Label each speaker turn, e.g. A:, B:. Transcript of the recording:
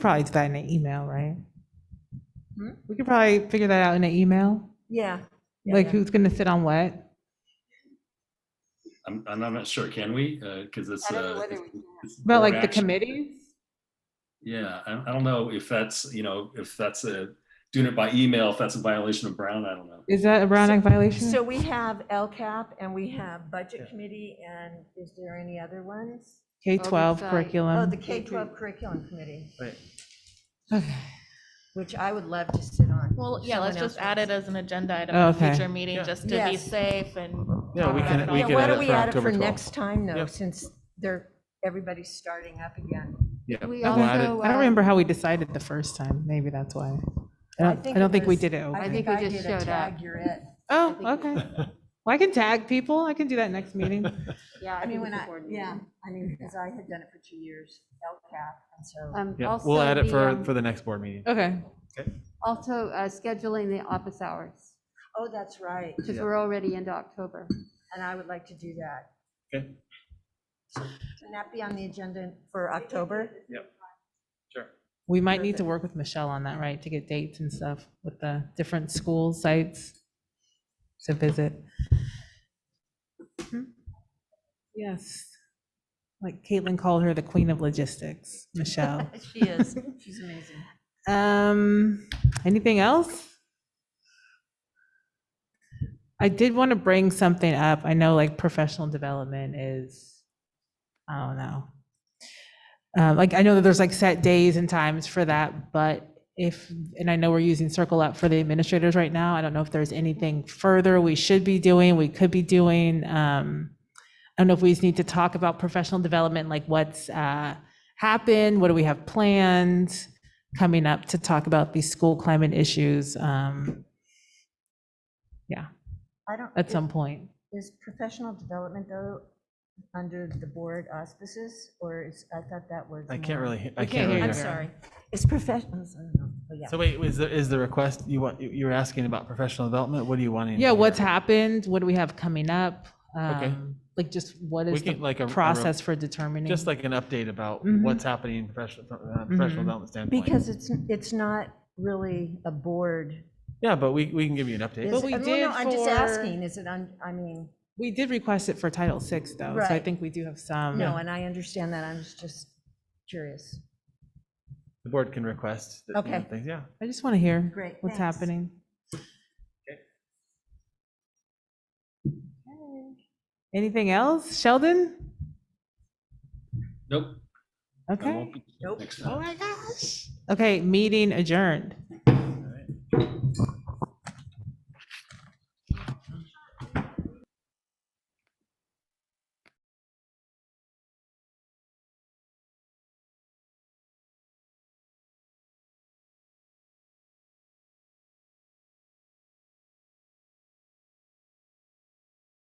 A: Probably do that in an email, right?
B: Hmm?
A: We could probably figure that out in an email,
B: Yeah. Yeah,
A: like
B: yeah.
A: who's gonna sit on what?
C: I'm, I'm not sure, can we? Because it's.
B: I don't know
C: uh,
B: whether
C: it's-
B: we can.
C: it's
A: About
C: board
A: like the
C: action.
A: committees?
C: Yeah, I, I don't know if that's, you know, if that's a, doing it by email, if that's a violation of Brown, I don't know.
A: Is that a Brown Act violation?
B: So we have LCAP and we have Budget Committee, and is there any other ones?
A: K-12
D: Oversight.
B: Oh, the
A: curriculum.
B: K-12 Curriculum Committee,
A: Okay.
B: which I would love to sit on.
D: Well, yeah, let's
B: Someone
D: just
B: else
D: add
B: wants
D: it as an agenda item
A: Oh,
D: at a
A: okay.
D: future meeting, just to be
B: Yes.
D: safe and.
E: Yeah, we
D: talk
E: can-
D: about it
E: we
D: all.
B: Yeah,
E: can
B: why
E: add
B: don't
E: it
B: we
E: for
B: add it for
E: October 12th.
B: next time, though,
E: Yep.
B: since they're, everybody's starting up again?
E: Yeah.
D: We
E: we'll add it.
D: also,
A: I don't
D: uh,
A: remember how we decided the first time. Maybe that's why. I don't, I don't think we
B: was-
A: did it. open.
B: I think I did a tag, you're it.
A: Oh,
D: I think
A: okay. Well, I can tag people. I can do that next meeting.
D: Yeah,
B: I
D: I
B: mean,
D: think
B: when
D: it's
B: I,
D: important.
B: yeah, I mean, because I had done it for two years, LCAP, and so.
F: Um,
E: Yeah,
F: also
E: we'll add it for,
F: um,
E: for the next board meeting.
A: Okay.
F: Also, uh, scheduling the office hours,
B: Oh, that's right,
F: because
E: Yeah.
F: we're already into October.
B: and I would like to do that.
E: Okay.
B: Can that be on the agenda for October?
E: Sure.
A: We might need to work with Michelle on that, right, to get dates and stuff with the different school sites to visit. Yes. Like Caitlin called her the queen of logistics, Michelle.
B: She is, she's amazing.
A: Um, anything else? I did want to bring something up. I know like professional development is, I don't know. Um, like I know that there's like set days and times for that, but if, and I know we're using Circle Up for the administrators right now. I don't know if there's anything further we should be doing, we could be doing. Um, I don't know if we just need to talk about professional development, like what's uh, happened, what do we have planned? coming up to talk about these school climate issues um,
B: I don't.
A: at
B: is-
A: some point.
B: Is professional development though, under the board auspices, or is, I thought that was.
E: I can't
B: more-
E: really, he- I
A: We
E: can't
A: can't
E: really
A: hear
B: I'm
A: you.
E: hear.
B: sorry. It's professional, oh, yeah.
E: So wait, is the, is the request, you want, you- you're asking about professional development? What do you want?
A: Yeah, what's happened? What do we have coming up?
E: Okay.
A: Um, Like just what
E: We
A: is
E: can,
A: the
E: like a. a re-
A: process for determining?
E: Just like an update about
A: Mhm.
E: what's happening in professional, from a professional
A: Mhm.
E: development standpoint.
B: Because it's, it's not really a board.
E: Yeah, but we, we can give you an update.
B: is
A: But
B: it?
A: we
B: Well, no,
A: did
B: I'm just
A: for-
B: asking, is it on, I mean,
A: We did request it for Title VI though, so I
B: Right.
A: think we do have
E: Um,
A: some.
B: no, and I understand that, I was just curious.
E: The board can request. that, you know,
B: Okay.
E: Things, yeah.
A: I just want to hear
B: Great,
A: what's
B: thanks.
A: happening. Anything else? Sheldon?
C: Nope. I
A: Okay.
C: won't be-
B: Nope.
C: Next time.
B: Oh
A: my gosh. Okay, meeting adjourned.